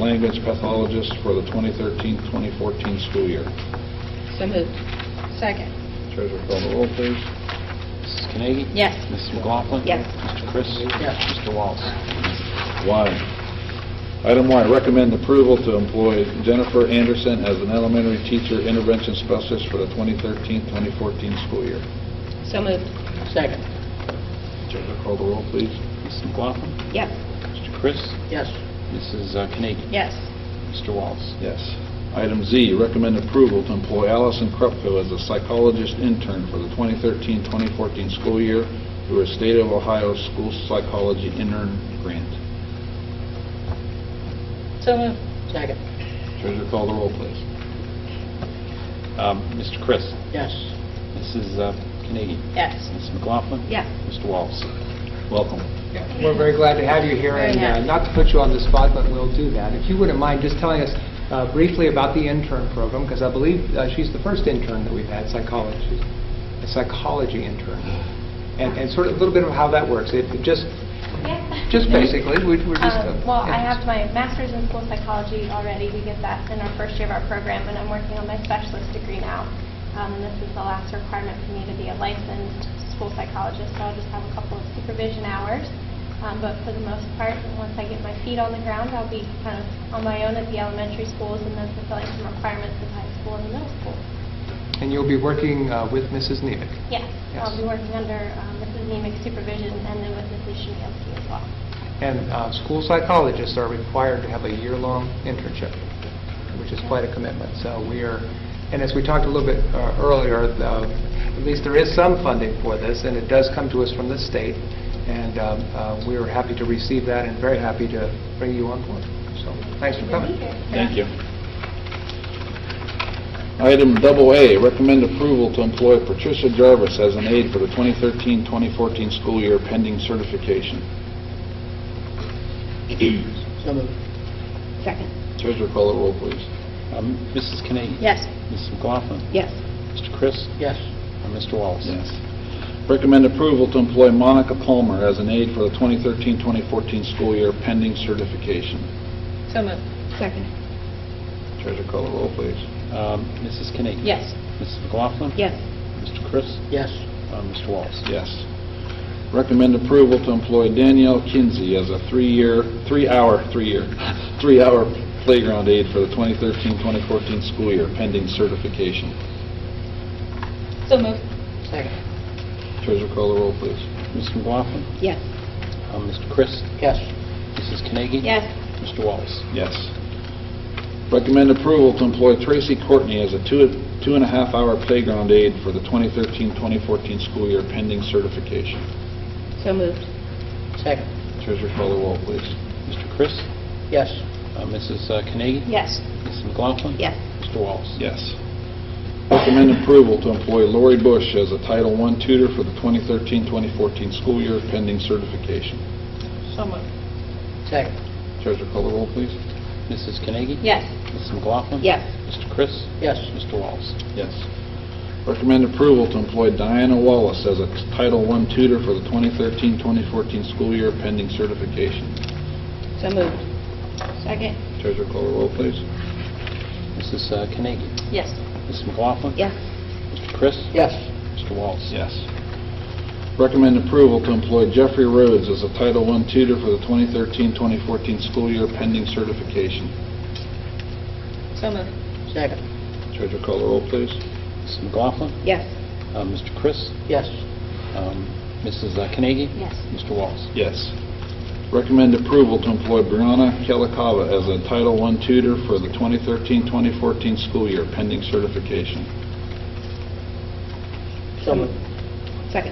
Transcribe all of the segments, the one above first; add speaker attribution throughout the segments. Speaker 1: language pathologist for the 2013-2014 school year.
Speaker 2: So moved. Second.
Speaker 1: Treasurer call the roll, please.
Speaker 3: Mrs. Carnegie?
Speaker 2: Yes.
Speaker 3: Mrs. McLaughlin?
Speaker 2: Yes.
Speaker 3: Mr. Chris?
Speaker 4: Yes.
Speaker 3: Mr. Wallace?
Speaker 1: Y. Item Y, recommend approval to employ Jennifer Anderson as an elementary teacher intervention specialist for the 2013-2014 school year.
Speaker 2: So moved.
Speaker 4: Second.
Speaker 1: Treasurer call the roll, please.
Speaker 3: Mrs. McLaughlin?
Speaker 2: Yes.
Speaker 3: Mr. Chris?
Speaker 4: Yes.
Speaker 3: Mrs. uh, Carnegie?
Speaker 2: Yes.
Speaker 3: Mr. Wallace?
Speaker 1: Yes. Item Z, recommend approval to employ Allison Krupko as a psychologist intern for the 2013-2014 school year through a State of Ohio School Psychology Intern Grant.
Speaker 2: So moved.
Speaker 4: Second.
Speaker 1: Treasurer call the roll, please.
Speaker 3: Um, Mr. Chris?
Speaker 4: Yes.
Speaker 3: Mrs. uh, Carnegie?
Speaker 2: Yes.
Speaker 3: Mrs. McLaughlin?
Speaker 2: Yes.
Speaker 3: Mr. Wallace?
Speaker 1: Welcome.
Speaker 5: We're very glad to have you here,
Speaker 2: Very
Speaker 5: and uh,
Speaker 2: happy.
Speaker 5: not to put you on the spot, but we'll do that. If you wouldn't mind just telling us uh, briefly about the intern program, because I believe uh, she's the first intern that we've had, psychology, a psychology intern, and and sort of a little bit of how that works. It it just,
Speaker 6: Yeah.
Speaker 5: just basically, we- we're just... uh,
Speaker 6: Um, Well, I
Speaker 5: yeah.
Speaker 6: have my master's in school psychology already. We get that in our first year of our program, and I'm working on my specialist degree now. Um, And this is the last requirement for me to be a licensed school psychologist, so I'll just have a couple of supervision hours. Um, But for the most part, once I get my feet on the ground, I'll be kind of on my own at the elementary schools and then fulfilling some requirements in high school and the middle school.
Speaker 5: And you'll be working uh, with Mrs. Nevick.
Speaker 6: Yes, I'll
Speaker 5: Yes.
Speaker 6: be working under um, Mrs. Nemec's supervision and then with Mrs. Shemielski as well.
Speaker 5: And uh, school psychologists are required to have a year-long internship, which is quite a commitment. So we are, and as we talked a little bit uh, earlier, uh, at least there is some funding for this, and it does come to us from the state, and um, uh, we are happy to receive that and very happy to bring you on board. So thanks for
Speaker 6: Good to be
Speaker 5: coming.
Speaker 6: here.
Speaker 1: Thank you. Item double A, recommend approval to employ Patricia Jarvis as an aide for the 2013-2014 school year pending certification.
Speaker 4: So moved.
Speaker 2: Second.
Speaker 1: Treasurer call the roll, please.
Speaker 3: Um, Mrs. Carnegie?
Speaker 2: Yes.
Speaker 3: Mrs. McLaughlin?
Speaker 2: Yes.
Speaker 3: Mr. Chris?
Speaker 4: Yes.
Speaker 3: And Mr. Wallace?
Speaker 1: Yes. Recommend approval to employ Monica Palmer as an aide for the 2013-2014 school year pending certification.
Speaker 2: So moved. Second.
Speaker 1: Treasurer call the roll, please.
Speaker 3: Um, Mrs. Carnegie?
Speaker 2: Yes.
Speaker 3: Mrs. McLaughlin?
Speaker 2: Yes.
Speaker 3: Mr. Chris?
Speaker 4: Yes.
Speaker 3: Uh, Mr. Wallace?
Speaker 1: Yes. Recommend approval to employ Danielle Kinsey as a three-year, three-hour, three-year, three-hour playground aide for the 2013-2014 school year pending certification.
Speaker 2: So moved.
Speaker 4: Second.
Speaker 1: Treasurer call the roll, please.
Speaker 3: Mrs. McLaughlin?
Speaker 2: Yes.
Speaker 3: Uh, Mr. Chris?
Speaker 4: Yes.
Speaker 3: Mrs. Carnegie?
Speaker 2: Yes.
Speaker 3: Mr. Wallace?
Speaker 1: Yes. Recommend approval to employ Tracy Courtney as a two, two and a half hour playground aide for the 2013-2014 school year pending certification.
Speaker 2: So moved.
Speaker 4: Second.
Speaker 1: Treasurer call the roll, please.
Speaker 3: Mr. Chris?
Speaker 4: Yes.
Speaker 3: Uh, Mrs. uh, Carnegie?
Speaker 2: Yes.
Speaker 3: Mrs. McLaughlin?
Speaker 2: Yes.
Speaker 3: Mr. Wallace?
Speaker 1: Yes. Recommend approval to employ Lori Bush as a Title I tutor for the 2013-2014 school year pending certification.
Speaker 2: So moved.
Speaker 4: Second.
Speaker 1: Treasurer call the roll, please.
Speaker 3: Mrs. Carnegie?
Speaker 2: Yes.
Speaker 3: Mrs. McLaughlin?
Speaker 2: Yes.
Speaker 3: Mr. Chris?
Speaker 4: Yes.
Speaker 3: Mr. Wallace?
Speaker 1: Yes. Recommend approval to employ Diana Wallace as a Title I tutor for the 2013-2014 school year pending certification.
Speaker 2: So moved. Second.
Speaker 1: Treasurer call the roll, please.
Speaker 3: Mrs. uh, Carnegie?
Speaker 2: Yes.
Speaker 3: Mrs. McLaughlin?
Speaker 2: Yes.
Speaker 3: Mr. Chris?
Speaker 4: Yes.
Speaker 3: Mr. Wallace?
Speaker 1: Yes. Recommend approval to employ Jeffrey Rhodes as a Title I tutor for the 2013-2014 school year pending certification.
Speaker 2: So moved.
Speaker 4: Second.
Speaker 1: Treasurer call the roll, please.
Speaker 3: Mrs. McLaughlin?
Speaker 2: Yes.
Speaker 3: Uh, Mr. Chris?
Speaker 4: Yes.
Speaker 3: Um, Mrs. uh, Carnegie?
Speaker 2: Yes.
Speaker 3: Mr. Wallace?
Speaker 1: Yes. Recommend approval to employ Brianna Kelikava as a Title I tutor for the 2013-2014 school year pending certification.
Speaker 4: So moved.
Speaker 2: Second.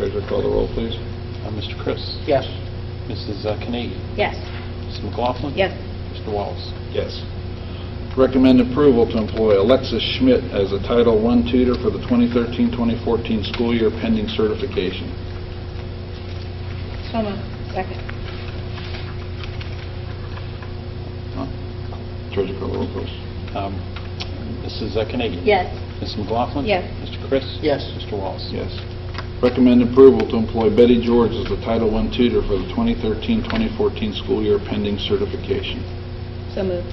Speaker 1: Treasurer call the roll, please.
Speaker 3: Uh, Mr. Chris?
Speaker 4: Yes.
Speaker 3: Mrs. uh, Carnegie?
Speaker 2: Yes.
Speaker 3: Mrs. McLaughlin?
Speaker 2: Yes.
Speaker 3: Mr. Wallace?
Speaker 1: Yes. Recommend approval to employ Alexis Schmidt as a Title I tutor for the 2013-2014 school year pending certification.
Speaker 2: So moved. Second.
Speaker 1: Huh? Treasurer call the roll, please.
Speaker 3: Um, Mrs. uh, Carnegie?
Speaker 2: Yes.
Speaker 3: Mrs. McLaughlin?
Speaker 2: Yes.
Speaker 3: Mr. Chris?
Speaker 4: Yes.
Speaker 3: Mr. Wallace?
Speaker 1: Yes. Recommend approval to employ Betty George as the Title I tutor for the 2013-2014 school year pending certification.
Speaker 2: So moved.